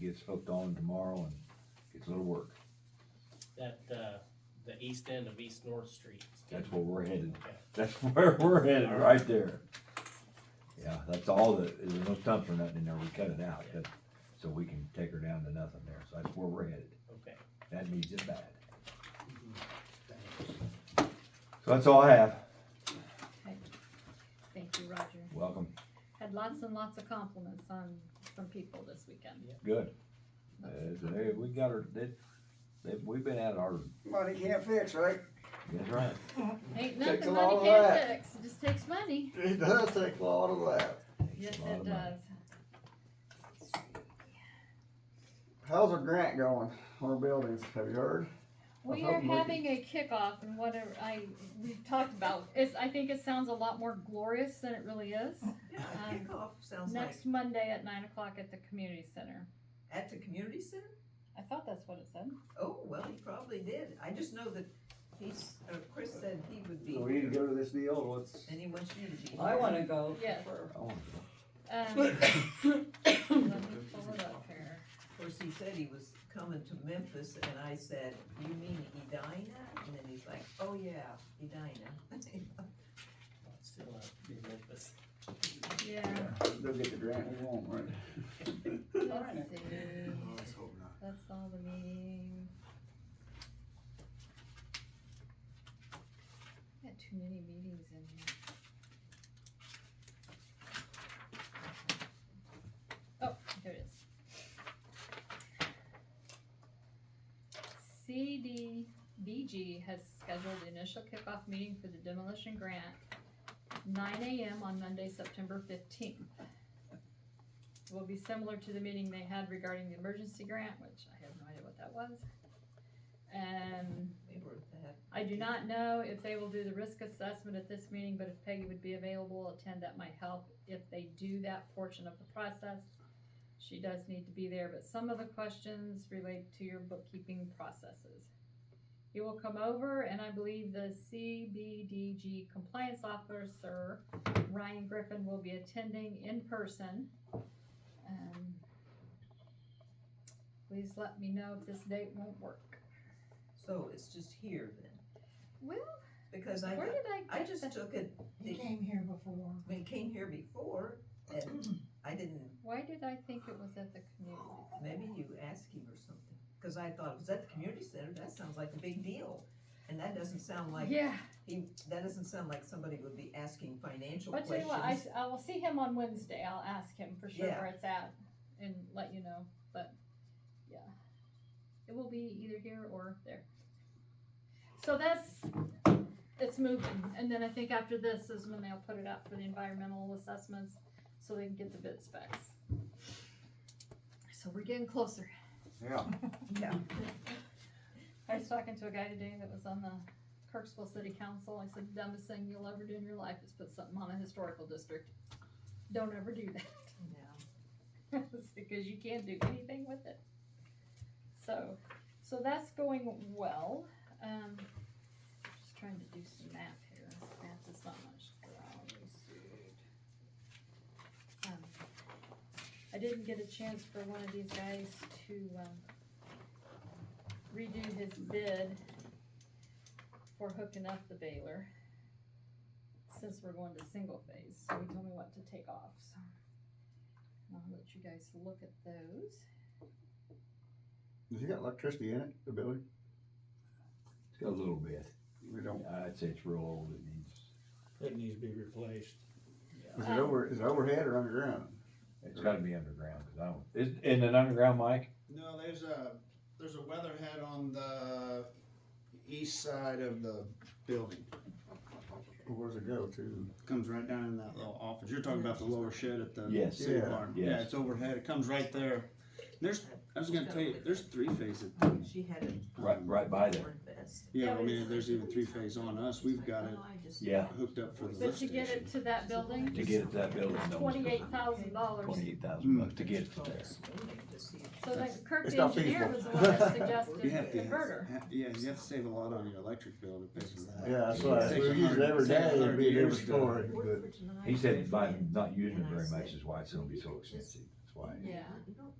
gets hooked on tomorrow and gets a little work. That, uh, the east end of East North Street. That's where we're headed. Okay. That's where we're headed, right there. Yeah, that's all that, there's no stumps or nothing in there, we cut it out, that- so we can take her down to nothing there, so that's where we're headed. Okay. That needs it bad. So that's all I have. Thank you, Roger. Welcome. Had lots and lots of compliments on, from people this weekend. Good. Uh, so there, we got her, they, they, we've been at our, Money can't fix, right? that's right. Ain't Takes a nothing lot money of can't that. fix, it just takes money. It does take a lot of that. Yes, Takes a lot it of money. does. How's our grant going on our buildings? Have you heard? We hope are we can- having a kickoff and whatever I, we've talked about, it's, I think it sounds a lot more glorious than it really is. Yeah, Um, kickoff sounds like, Next Monday at nine o'clock at the community center. at the community center? I thought that's what it said. Oh, well, he probably did. I just know that he's, uh, Chris said he would be, So we need to here, go to this deal, what's? and he wants you to be. I here. wanna go Yes. for, I wanna Um, let me pull it up here. Of course, he said he was coming to Memphis, and I said, you mean Edina? And then he's like, oh, yeah, Edina. Still up in Memphis. Yeah, They'll get the grant we want, right? let's see. let's hope not. That's all the meetings. Got too many meetings in here. Oh, here it is. CDBG has scheduled the initial kickoff meeting for the demolition grant, nine AM on Monday, September fifteenth will be similar to the meeting they had regarding the emergency grant, which I have no idea what that was. And They were at that. I do not know if they will do the risk assessment at this meeting, but if Peggy would be available, attend, that might help if they do that portion of the process. She does need to be there, but some of the questions relate to your bookkeeping processes. He will come over and I believe the CBDG compliance officer, Ryan Griffin, will be attending in person. Um, Please let me know if this date won't work. So it's just here then, Well, because I, where got- did I get I the- just took it, He came here before. when it came here before, and I didn't, Why did I think it was at the community? maybe you asked him or something. Cause I thought, was that the community center? That sounds like a big deal, and that doesn't sound like Yeah, He, that doesn't sound like somebody would be asking financial but tell you what, I, questions. s- I will see him on Wednesday, I'll ask him for sure Yeah. where it's at and let you know, but, yeah. It will be either here or there. So that's, it's moving, and then I think after this is when they'll put it out for the environmental assessments, so they can get the bid specs. So we're getting closer. Yeah. I was talking to a guy today that was on the Kirksville City Council. I said, dumbest thing you'll ever do in your life is put something on a historical district. Don't ever do that, because you can't do anything with it. So, so that's going well. Um, just trying to do some math here. Math is not much. Let me see. Um, I didn't get a chance for one of these guys to, um, redo his bid for hooking up the baler, since we're going to single phase, so he told me what to take off, so. and I'll let you guys look at those. Has he got electricity in it, the building? It's got a little bit. We don't. I'd say it's real old, it needs, It needs to be replaced. Is it over, is it overhead or underground? it's gotta be underground, cause I don't, is, in an underground, Mike? No, there's a, there's a weather head on the east side of the building. Or Where's it go to? Comes right down in that little office. You're talking about the lower shed at the Yes. city Yeah. barn. Yes. Yeah, it's overhead. It comes right there. There's, I was gonna tell you, there's three phase. She had it. Right, right by there. Yeah, I mean, there's even three phase on us. We've got it Yeah. hooked up for the But lift to get station. it to that building, To get it to that building, that was twenty-eight thousand dollars, twenty-eight thousand bucks to get it to there. so that Kirk It's the not engineer was the feasible. one that You suggested have the to, converter. ha- yeah, you have to save a lot on your electric bill to pay for that. Yeah, that's what, I- we Takes use it every 100 day, it'd be a years different to- story, but. He said by not using it very much is why it's gonna be so expensive, that's why. Yeah. You don't